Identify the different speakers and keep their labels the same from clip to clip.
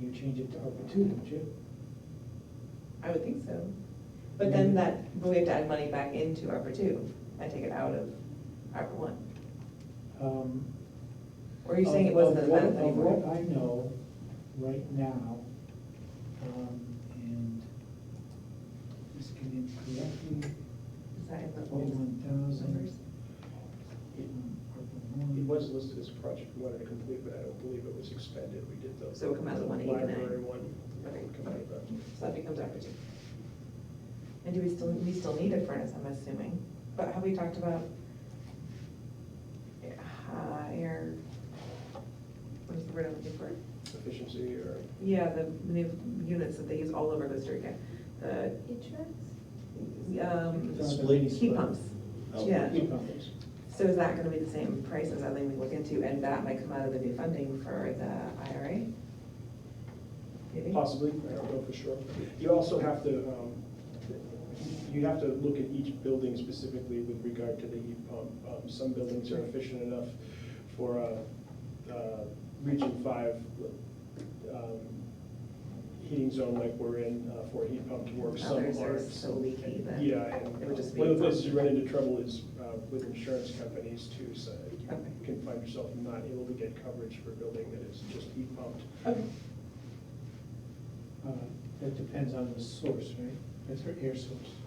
Speaker 1: you change it to ARPA two, don't you?
Speaker 2: I would think so. But then that, but we have to add money back into ARPA two and take it out of ARPA one.
Speaker 1: Um,
Speaker 2: Or are you saying it
Speaker 1: of-
Speaker 2: wasn't
Speaker 1: of
Speaker 2: as
Speaker 1: what-
Speaker 2: bad
Speaker 1: Of
Speaker 2: anymore?
Speaker 1: what I know right now, um, and this can incorrectly,
Speaker 2: Is that in the
Speaker 1: oh, one thousand.
Speaker 2: numbers?
Speaker 3: It was listed as a project we wanted to complete, but I don't believe it was expended, we did the.
Speaker 2: So it come out as a 189.
Speaker 3: Library one, that
Speaker 2: Okay.
Speaker 3: would come out of that.
Speaker 2: So that becomes ARPA two. And do we still, we still need a furnace, I'm assuming, but have we talked about higher, what is the word I'm looking for?
Speaker 3: efficiency or,
Speaker 2: Yeah, the new units that they use all over Costa Rica, the,
Speaker 4: Heat shrinks?
Speaker 2: um,
Speaker 1: Splitting
Speaker 2: heat
Speaker 1: split.
Speaker 2: pumps.
Speaker 3: Oh,
Speaker 2: Yeah.
Speaker 1: Heat pumps.
Speaker 2: So is that gonna be the same price as that thing we look into, and that might come out of the new funding for the IRA? Maybe?
Speaker 3: possibly, I don't know for sure. You also have to, um, you have to look at each building specifically with regard to the heat pump. Um, Some buildings are efficient enough for a, uh, region five, um, heating zone like we're in uh, for a heat pump to work, some aren't.
Speaker 2: Others are so leaky that
Speaker 3: Yeah,
Speaker 2: it would just
Speaker 3: and
Speaker 2: be
Speaker 3: one of the
Speaker 2: fun.
Speaker 3: places you run into trouble is uh, with insurance companies too, so you
Speaker 2: Okay.
Speaker 3: can find yourself not able to get coverage for a building that is just heat pumped.
Speaker 2: Okay,
Speaker 1: Uh, That depends on the source, right? That's their air source.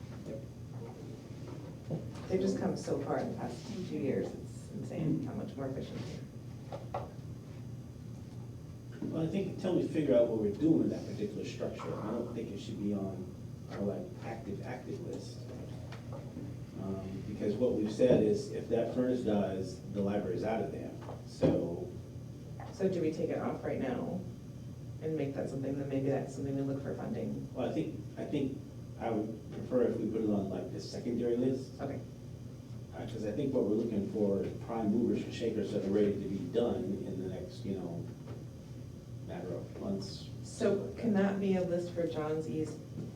Speaker 2: they've just come so far in the past few years, it's insane how much more efficient.
Speaker 5: Well, I think until we figure out what we're doing with that particular structure, I don't think it should be on our like active, active list. Um, Because what we've said is if that furnace dies, the library's out of there. So,
Speaker 2: So do we take it off right now and make that something, then maybe that's something we look for funding?
Speaker 5: well, I think, I think I would prefer if we put it on like the secondary list.
Speaker 2: Okay,
Speaker 5: Because I think what we're looking for is prime movers and shakers that are ready to be done in the next, you know, matter of months.
Speaker 2: so can that be a list for John's E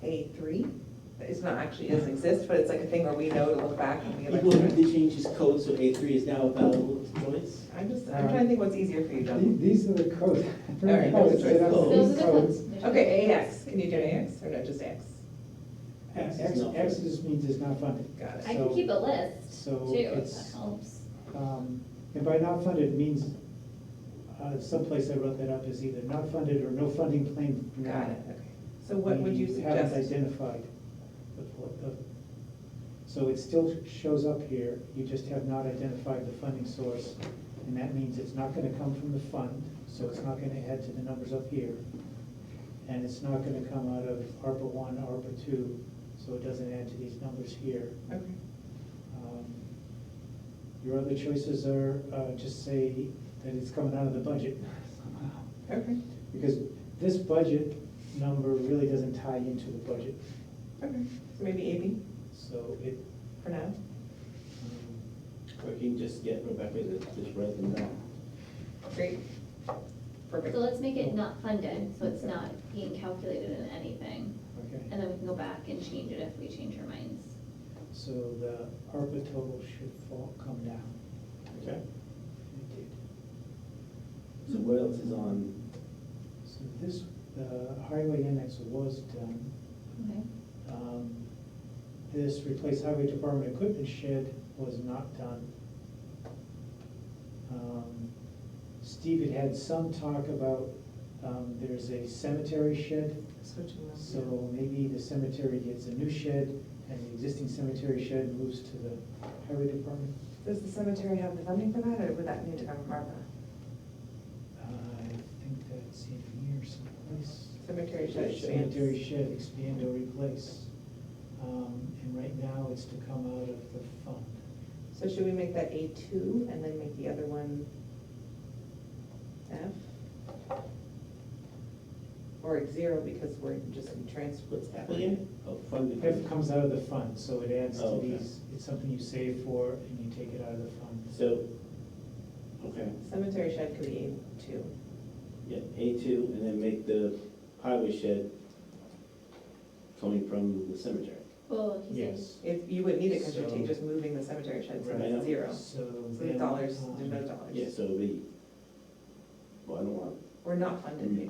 Speaker 2: A three? It's not actually, it doesn't exist, but it's like a thing where we know to look back and be like.
Speaker 5: People have to change his code, so A three is now available to Joyce.
Speaker 2: I'm just,
Speaker 1: Uh,
Speaker 2: I'm trying to think what's easier for you,
Speaker 6: The-
Speaker 2: John.
Speaker 6: These are the codes.
Speaker 2: All right,
Speaker 6: Codes, they don't have
Speaker 4: Those
Speaker 5: Oh.
Speaker 6: these
Speaker 4: are the
Speaker 6: codes.
Speaker 4: codes. There's
Speaker 2: Okay, AX, can you do an AX or no, just X?
Speaker 1: X,
Speaker 5: X is not
Speaker 1: X
Speaker 5: funded.
Speaker 1: just means it's not funded.
Speaker 2: Got it.
Speaker 4: I can
Speaker 1: So-
Speaker 4: keep a list
Speaker 1: so
Speaker 4: too, if
Speaker 1: it's-
Speaker 4: that helps.
Speaker 1: Um, And by not funded means, uh, someplace I wrote that up is either not funded or no funding claim.
Speaker 2: Got it, okay. So what would you
Speaker 1: We haven't
Speaker 2: suggest?
Speaker 1: identified the, pl- the, so it still shows up here, you just have not identified the funding source. And that means it's not gonna come from the fund, so it's not gonna add to the numbers up here. And it's not gonna come out of ARPA one, ARPA two, so it doesn't add to these numbers here.
Speaker 2: Okay.
Speaker 1: Um, Your other choices are, uh, just say that it's coming out of the budget somehow.
Speaker 2: Okay,
Speaker 1: Because this budget number really doesn't tie into the budget,
Speaker 2: okay. So maybe AB
Speaker 1: so it,
Speaker 2: for now?
Speaker 1: um,
Speaker 5: Or you can just get Rebecca to just write them down.
Speaker 2: Great. Perfect.
Speaker 4: So let's make it not funded, so it's not being calculated in anything,
Speaker 1: okay.
Speaker 4: and then we can go back and change it if we change our minds.
Speaker 1: So the ARPA total should fall, come down.
Speaker 5: Okay.
Speaker 1: And It did.
Speaker 5: So what else is on,
Speaker 1: So this, the highway annex was done.
Speaker 4: Okay.
Speaker 1: Um, This replace highway department equipment shed was not done. Um, Steve had had some talk about, um, there's a cemetery shed,
Speaker 2: Switching them.
Speaker 1: so maybe the cemetery gets a new shed and the existing cemetery shed moves to the highway department.
Speaker 2: Does the cemetery have the funding for that, or would that need to come from ARPA?
Speaker 1: Uh, I think that's in here someplace.
Speaker 2: Cemetery should expand.
Speaker 1: Sanitary shed, expand or replace. Um, And right now, it's to come out of the fund.
Speaker 2: So should we make that A two and then make the other one F? Or zero because we're just in transfer.
Speaker 5: what's happening? Oh, funding.
Speaker 1: F comes out of the fund, so it adds
Speaker 5: Oh,
Speaker 1: to
Speaker 5: okay.
Speaker 1: these, it's something you save for and you take it out of the fund.
Speaker 5: So, okay,
Speaker 2: Cemetery shed could be A two.
Speaker 5: yeah, A two, and then make the highway shed coming from the cemetery.
Speaker 4: Well, he said,
Speaker 1: Yes.
Speaker 2: If, you wouldn't need it because you're ta-
Speaker 1: So-
Speaker 2: just moving the cemetery shed, so
Speaker 1: Right.
Speaker 2: that's zero.
Speaker 1: So
Speaker 2: So the
Speaker 1: then,
Speaker 2: dollars,
Speaker 1: um,
Speaker 2: there's no dollars.
Speaker 5: Yeah, so it'll be, well, I don't want
Speaker 2: We're not funded,
Speaker 5: Mm.
Speaker 1: Mm-hmm.
Speaker 2: maybe.